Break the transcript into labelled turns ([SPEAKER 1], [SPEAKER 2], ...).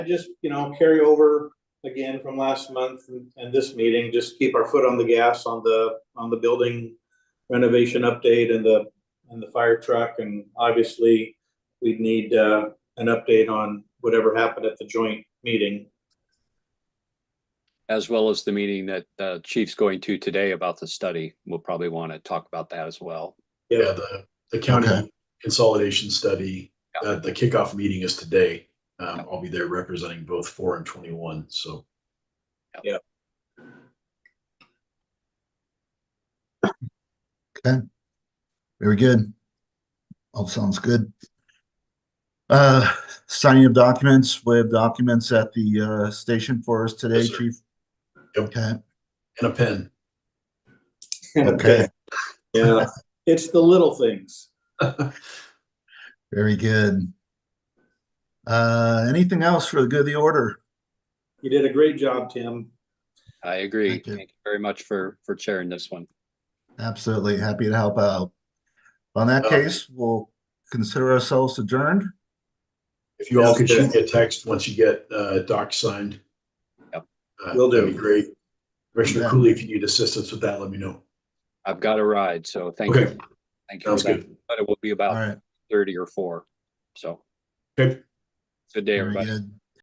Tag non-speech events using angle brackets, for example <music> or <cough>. [SPEAKER 1] I just, you know, carry over again from last month and, and this meeting, just keep our foot on the gas on the, on the building renovation update and the, and the fire truck, and obviously, we'd need, uh, an update on whatever happened at the joint meeting.
[SPEAKER 2] as well as the meeting that uh chief's going to today about the study. We'll probably want to talk about that as well.
[SPEAKER 3] Yeah, the, the
[SPEAKER 4] Okay.
[SPEAKER 3] county consolidation study,
[SPEAKER 2] Yeah.
[SPEAKER 3] uh, the kickoff meeting is today. Um, I'll be there representing both four and twenty-one, so.
[SPEAKER 4] Okay. Very good. All sounds good. Uh, signing of documents, we have documents at the, uh, station for us today,
[SPEAKER 3] Yes, sir.
[SPEAKER 4] chief.
[SPEAKER 3] Yep.
[SPEAKER 4] Okay,
[SPEAKER 3] And a pen.
[SPEAKER 4] okay,
[SPEAKER 1] <laughs> Yeah, it's the little things.
[SPEAKER 4] very good. Uh, anything else for the good of the order?
[SPEAKER 1] You did a great job, Tim.
[SPEAKER 2] I agree.
[SPEAKER 4] Thank you.
[SPEAKER 2] Thank you very much for for chairing this one.
[SPEAKER 4] Absolutely, happy to help out. On that
[SPEAKER 3] Uh,
[SPEAKER 4] case, we'll consider ourselves adjourned.
[SPEAKER 3] If you all
[SPEAKER 1] Sounds
[SPEAKER 3] could
[SPEAKER 1] good.
[SPEAKER 3] shoot me a text once you get, uh, doc signed.
[SPEAKER 2] Yep.
[SPEAKER 3] Uh,
[SPEAKER 1] Will do.
[SPEAKER 3] that'd be great. Commissioner
[SPEAKER 4] Yeah.
[SPEAKER 3] Cooley, if you need assistance with that, let me know.
[SPEAKER 2] I've got a ride, so thank
[SPEAKER 3] Okay,
[SPEAKER 2] you. Thank you.
[SPEAKER 3] sounds
[SPEAKER 2] for that.
[SPEAKER 3] good.
[SPEAKER 2] But it will be
[SPEAKER 4] All
[SPEAKER 2] about
[SPEAKER 4] right,
[SPEAKER 2] thirty or four. So
[SPEAKER 3] Okay,
[SPEAKER 2] good day,
[SPEAKER 4] very
[SPEAKER 2] everybody.
[SPEAKER 4] good.